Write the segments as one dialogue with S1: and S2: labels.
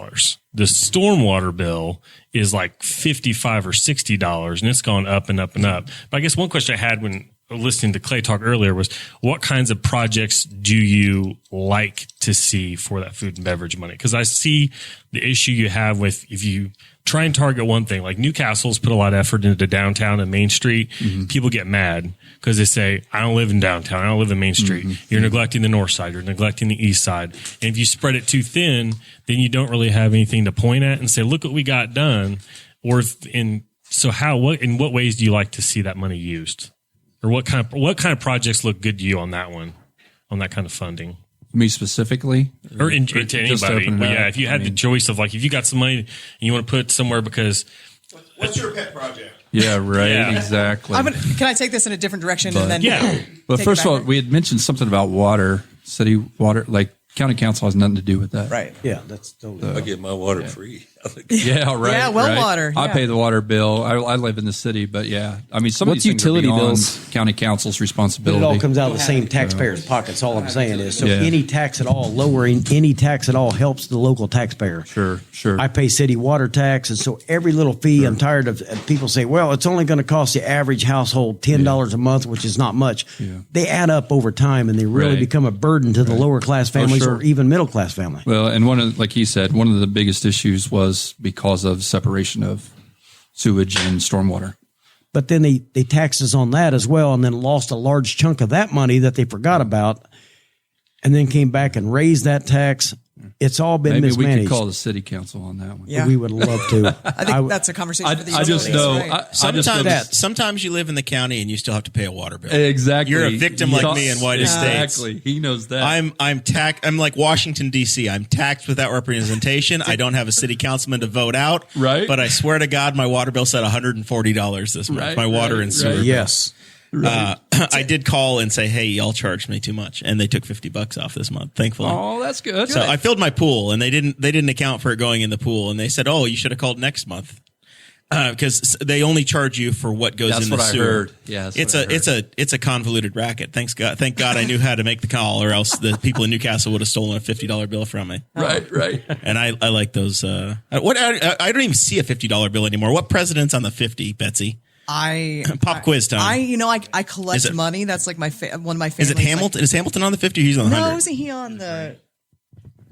S1: dollars. The stormwater bill is like fifty five or sixty dollars, and it's gone up and up and up. But I guess one question I had when listening to Clay talk earlier was, what kinds of projects do you like to see for that food and beverage money? Because I see the issue you have with if you try and target one thing, like Newcastle's put a lot of effort into downtown and Main Street.
S2: Mm-hmm.
S1: People get mad because they say, I don't live in downtown. I don't live in Main Street.
S2: Mm-hmm.
S1: You're neglecting the north side. You're neglecting the east side. And if you spread it too thin, then you don't really have anything to point at and say, look what we got done. Or if- in so how what in what ways do you like to see that money used? Or what kind of what kind of projects look good to you on that one? On that kind of funding?
S2: Me specifically,
S1: or in, into
S2: just
S1: anybody.
S2: open it
S1: Well, yeah,
S2: up.
S1: if you had the choice of like, if you got some money and you want to put it somewhere because
S3: What's your pet project?
S2: yeah, right,
S1: Yeah.
S2: exactly.
S4: I'm gonna, can I take this in a different direction
S2: But-
S4: and then
S1: yeah,
S2: but
S4: take it
S2: first of all,
S4: backward.
S2: we had mentioned something about water, city water, like county council has nothing to do with that,
S4: right?
S5: Yeah, that's
S2: Uh,
S5: totally.
S6: I get my water free.
S2: Yeah, right.
S4: Yeah, well
S2: right.
S4: water,
S2: I
S4: yeah.
S2: pay the water bill. I, I live in the city, but yeah, I mean, some
S7: What's
S2: of these things are
S7: utility
S2: beyond
S7: bills?
S2: county council's
S5: But
S2: responsibility.
S5: it all comes out of the same taxpayer's pockets. All I'm saying is, so
S2: Yeah.
S5: any tax at all, lowering any tax at all helps the local taxpayer.
S2: Sure, sure.
S5: I pay city water tax, and so every little fee. I'm tired of of people say, "Well, it's only going to cost the average household ten dollars a month, which is not much." They add up over time, and they really
S2: Right.
S5: become a burden to the lower class families
S2: sure.
S5: or even middle class family.
S2: Well, and one of, like he said, one of the biggest issues was because of separation of sewage and stormwater.
S5: but then they they taxes on that as well and then lost a large chunk of that money that they forgot about and then came back and raised that tax it's all been
S2: Maybe we
S5: mismanaged
S2: could call the city council on that one.
S4: Yeah.
S5: we would love to
S4: I think that's a conversation
S2: I,
S4: for the
S2: I just
S4: utilities,
S2: know.
S4: right?
S2: I, I
S3: Sometimes,
S2: just know this-
S3: sometimes you live in the county and you still have to pay a water bill.
S2: exactly.
S3: You're a victim like
S2: Yeah.
S3: me in white estates.
S2: Exactly. He knows that.
S3: I'm I'm tax I'm like Washington D.C. I'm taxed without representation. I don't have a city councilman to vote out.
S2: Right.
S3: But I swear to God, my water bill said 140 dollars this month.
S2: Right,
S3: my water
S2: right,
S3: and sewer.
S2: right.
S5: yes
S3: Uh, I did call and say, hey, y'all charged me too much, and they took 50 bucks off this month. Thankfully.
S2: oh, that's good.
S3: So I filled my pool, and they didn't they didn't account for it going in the pool, and they said, "Oh, you should have called next month," because they only charge you for what goes
S2: That's
S3: in the
S2: what I
S3: sewer.
S2: heard. Yeah, that's
S3: it's
S2: what
S3: a
S2: I heard.
S3: it's a it's a convoluted racket. Thanks God, thank God I knew how to make the call, or else the people in Newcastle would have stolen a fifty dollar bill from me.
S2: right, right.
S3: And I, I like those. Uh, what I, I don't even see a fifty dollar bill anymore. What president's on the fifty, Betsy?
S4: I
S3: Pop quiz time.
S4: I you know I I
S3: Is
S4: collect
S3: it-
S4: money. That's like my fa- one of my
S3: is
S4: favorites.
S3: it Hamilton? is Hamilton on the fifty? Or he's on the
S4: Like, no,
S3: hundred.
S4: isn't he on the?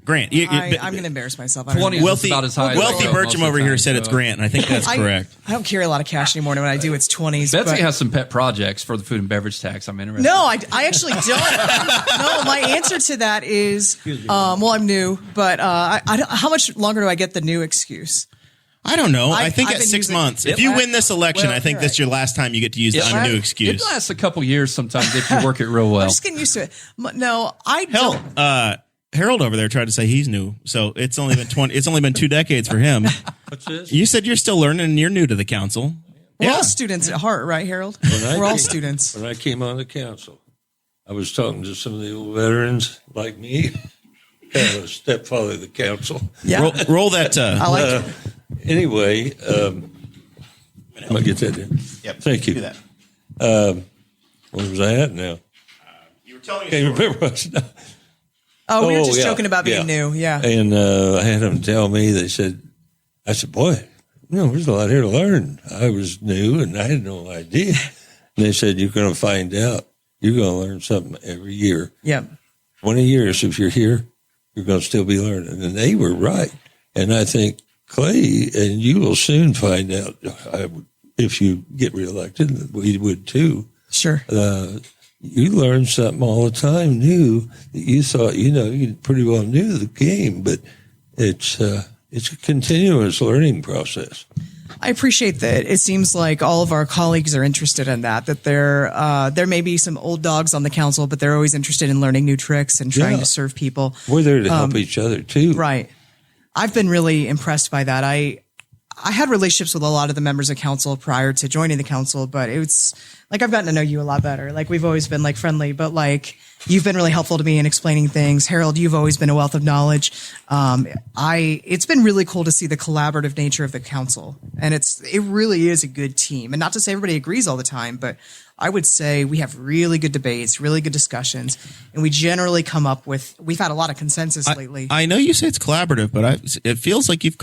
S3: Grant. You- you-
S4: I, I'm going to embarrass myself. I don't,
S2: Twenty
S4: know.
S2: Well, It's
S3: Wealthy,
S2: about as high as
S3: wealthy
S2: I go most of
S3: Bertram
S2: the
S3: over here
S2: time,
S3: said it's
S2: so-
S3: Grant, and I think that's
S4: I,
S3: correct.
S4: I don't carry a lot of cash anymore. and When I do, it's twenties.
S2: Betsy
S4: but-
S2: has some pet projects for the food and beverage tax. I'm interested.
S4: No, I, I actually don't. no, my answer to that is, um, well, I'm new, but uh, I, I don't, how much longer do I get the new excuse?
S3: I don't know. I,
S4: I-
S3: think
S4: I've
S3: at
S4: been
S3: six
S4: using-
S3: months, if
S4: Yep.
S3: you win this election,
S4: Well,
S3: I think
S4: you're right.
S3: that's your last time you get to use the
S2: It's-
S3: I'm new
S2: It
S3: excuse.
S2: lasts a couple years sometimes if you work it real well.
S4: I'm just getting used to it. M- No, I
S3: Hell,
S4: don't.
S3: uh, Harold over there tried to say he's new, so it's only been twenty. it's only been two decades for him. You said you're still learning, and you're new to the council.
S4: We're
S3: yeah.
S4: all students at heart, right, Harold?
S6: I
S4: We're all
S6: came-
S4: students.
S6: When I came on the council, I was talking to some of the old veterans like me, kind of a stepfather of the council.
S4: Yeah,
S3: Roll, roll that.
S4: I
S3: Uh,
S4: like it.
S6: Anyway, um, I'm gonna get that in. Yep. Thank you.
S3: do that.
S6: Um, where was I at now?
S3: you were telling
S6: Can't remember. what I was-
S4: Oh, we were
S6: Oh,
S4: just
S6: yeah,
S4: joking about being
S6: yeah.
S4: new. Yeah.
S6: And uh, I had them tell me, they said, I said, boy, you know, there's a lot here to learn. I was new and I had no idea. And they said, you're going to find out. You're going to learn something every year.
S4: Yeah.
S6: 20 years, if you're here, you're going to still be learning. And they were right. And I think, Clay, and you will soon find out I would- if you get reelected, and we would too.
S4: Sure.
S6: Uh, you learn something all the time new that you thought you know you pretty well knew the game, but it's uh, it's a continuous learning process.
S4: I appreciate that. It seems like all of our colleagues are interested in that. That there, uh, there may be some old dogs on the council, but they're always interested in learning new tricks and trying
S6: Yeah.
S4: to serve people.
S6: We're there to help each other too.
S4: Right. I've been really impressed by that. I I had relationships with a lot of the members of council prior to joining the council, but it's like I've gotten to know you a lot better. Like we've always been like friendly, but like you've been really helpful to me in explaining things. Harold, you've always been a wealth of knowledge. Um, I it's been really cool to see the collaborative nature of the council, and it's it really is a good team. And not to say everybody agrees all the time, but I would say we have really good debates, really good discussions, and we generally come up with. We've had a lot of consensus lately.
S3: I know you say it's collaborative, but I, it feels like you've